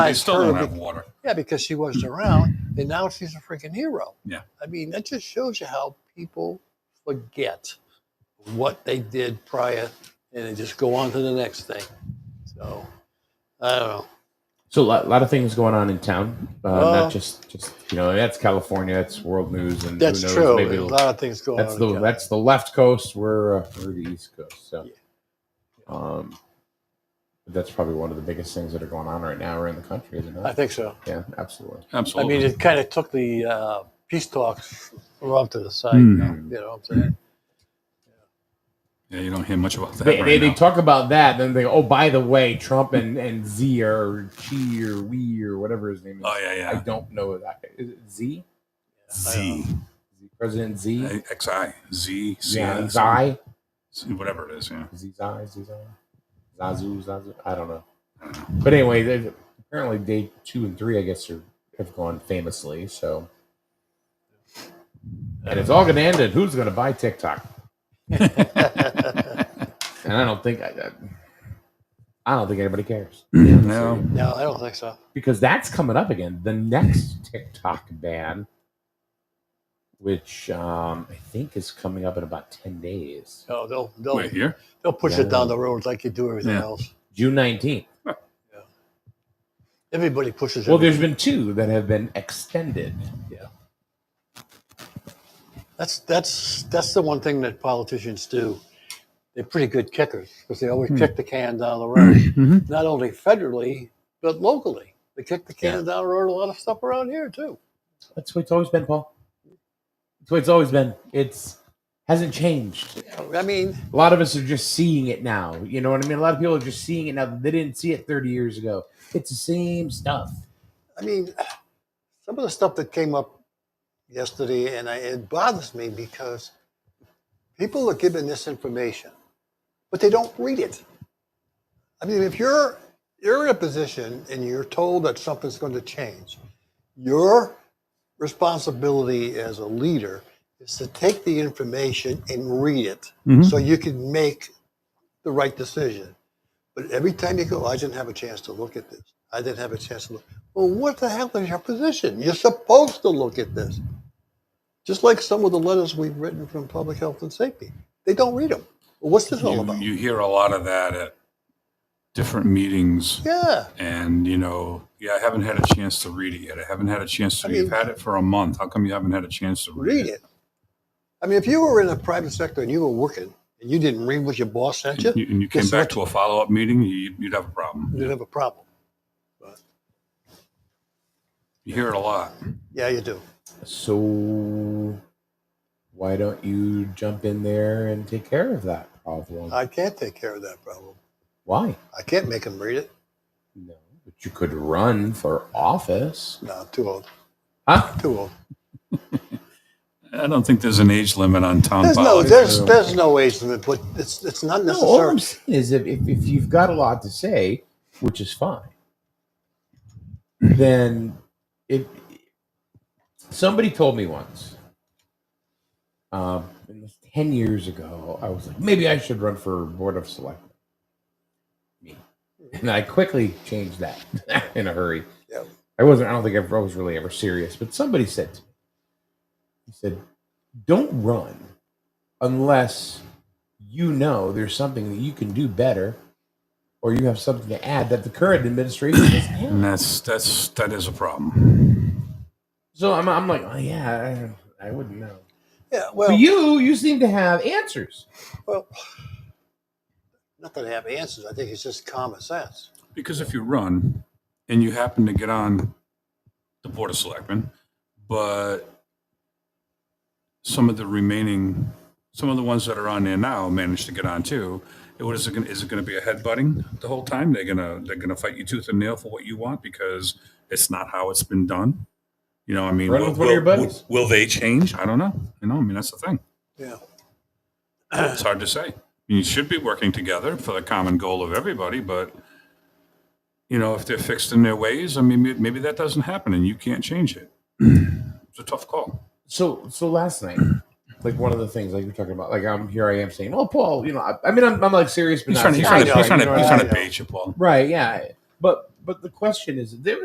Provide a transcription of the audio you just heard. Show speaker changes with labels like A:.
A: They still don't
B: her
A: have
B: be-
A: water.
B: Yeah, because she wasn't around, and now she's a freaking hero.
A: Yeah.
B: I mean, that just shows you how people forget what they did prior, and they just go on to the next thing. So, I don't know.
C: So a lot, lot of things going on in town, uh,
B: Well-
C: not just just you know that's California, that's world news, and
B: That's
C: who knows,
B: true.
C: Maybe
B: a
C: it'll-
B: lot of things going
C: that's
B: on.
C: the
B: in town.
C: that's the left coast. We're uh, we're the east coast, so
B: Yeah.
C: um, that's probably one of the biggest things that are going on right now around the country, isn't
B: I
C: it?
B: think so.
C: Yeah, absolutely.
B: I
A: Absolutely.
B: mean, it kind of took the uh, peace talks off to the side.
C: Mhm.
B: You know what I'm saying?
A: yeah, you don't hear much about that.
C: They,
A: right
C: they, they
A: now.
C: talk about that, then they go, oh, by the way, Trump and and Z or Chi or We or whatever his name is.
A: oh yeah,
C: I
A: yeah.
C: don't know that. Is it Z?
A: Z,
C: President Z?
A: A- X I Z C
C: Yeah,
A: S
C: Zai?
A: Z, whatever it is. Yeah.
C: Zizai, Zizai, Zazu, Zazu. I don't know.
A: I don't know.
C: But anyway, they- apparently day two and three, I guess, are, have gone famously. So, and it's all going to end at who's going to buy TikTok.
B: Yeah.
C: And I don't think I, I, I don't think anybody cares
A: no.
B: no, I don't think so.
C: because that's coming up again. The next TikTok ban, which um, I think is coming up in about ten days,
B: No, they'll they'll
A: Wait here.
B: they'll push
C: Yeah.
B: it down the road like you do everything
A: Yeah.
B: else.
C: June nineteenth.
B: Everybody pushes.
C: Well,
B: everything.
C: there's been two that have been extended.
B: That's that's that's the one thing that politicians do. They're pretty good kickers because they always kick the can down the road, not only federally but locally. They kick the can
C: Yeah.
B: down the road a lot of stuff around here too.
C: That's what it's always been, Paul. That's what it's always been. It's hasn't changed.
B: I mean,
C: A lot of us are just seeing it now. You know what I mean? A lot of people are just seeing it now. that They didn't see it 30 years ago. It's the same stuff.
B: I mean, some of the stuff that came up yesterday, and I, it bothers me because people are given this information, but they don't read it. I mean, if you're you're in a position and you're told that something's going to change, your responsibility as a leader is to take the information and read it so you can make the right decision. But every time you go, I didn't have a chance to look at this. I didn't have a chance to look. Well, what the hell is your position? You're supposed to look at this. Just like some of the letters we've written from public health and safety, they don't read them. Well, what's this all
A: You,
B: about?
A: you hear a lot of that at different meetings,
B: yeah.
A: and you know, yeah, I haven't had a chance to read it yet. I haven't had a chance to.
B: I
A: you've
B: mean-
A: had it for a month. How come you haven't had a chance to read,
B: read it. I mean, if you were in the private sector and you were working and you didn't read what your boss sent you,
A: And you, and you came
B: Yes,
A: back
B: sir.
A: to a follow-up meeting, you, you'd have a problem.
B: you'd have a problem.
A: You hear it a lot.
B: Yeah, you do.
C: So why don't you jump in there and take care of that problem?
B: I can't take care of that problem.
C: Why?
B: I can't make them read it.
C: No. But you could run for office.
B: No, I'm too old.
C: Huh?
B: Too old.
A: I don't think there's an age limit on town
B: There's no,
A: politics.
B: there's, there's no age limit, but it's, it's not
C: No, all
B: necessary.
C: I'm saying is if, if, if you've got a lot to say, which is fine, then if somebody told me once, um, it was 10 years ago, I was like, maybe I should run for Board of Selectmen. Me. And I quickly changed that in a hurry.
B: Yep.
C: I wasn't, I don't think I was really ever serious, but somebody said to me, he said, don't run unless you know there's something that you can do better or you have something to add that the current administration doesn't have.
A: And that's that's that is a problem.
C: So I'm, I'm like, oh, yeah, I, I wouldn't know.
B: Yeah,
C: But
B: well,
C: you, you seem to have answers.
B: well, not that I have answers. I think it's just common sense.
A: Because if you run and you happen to get on the board of selectmen, but some of the remaining, some of the ones that are on there now manage to get on too. It, what is it? Gonna, is it going to be a headbutting the whole time? They're gonna they're gonna fight you tooth and nail for what you want because it's not how it's been done. You know, I mean,
C: Run with one of your buddies.
A: will they change? I don't know. You know, I mean, that's the thing.
B: Yeah.
A: It's hard to say. You should be working together for the common goal of everybody, but you know, if they're fixed in their ways, I mean, may- maybe that doesn't happen and you can't change it. It's a tough call.
C: So, so last night, like one of the things like you're talking about, like I'm here, I am saying, oh, Paul, you know, I, I mean, I'm, I'm like serious, but
A: He's
C: not
A: trying, he's
C: serious.
A: trying to, he's trying to,
C: You know
A: he's
C: what I
A: trying
C: mean?
A: to bait you, Paul.
C: Right, yeah. But but the question is, there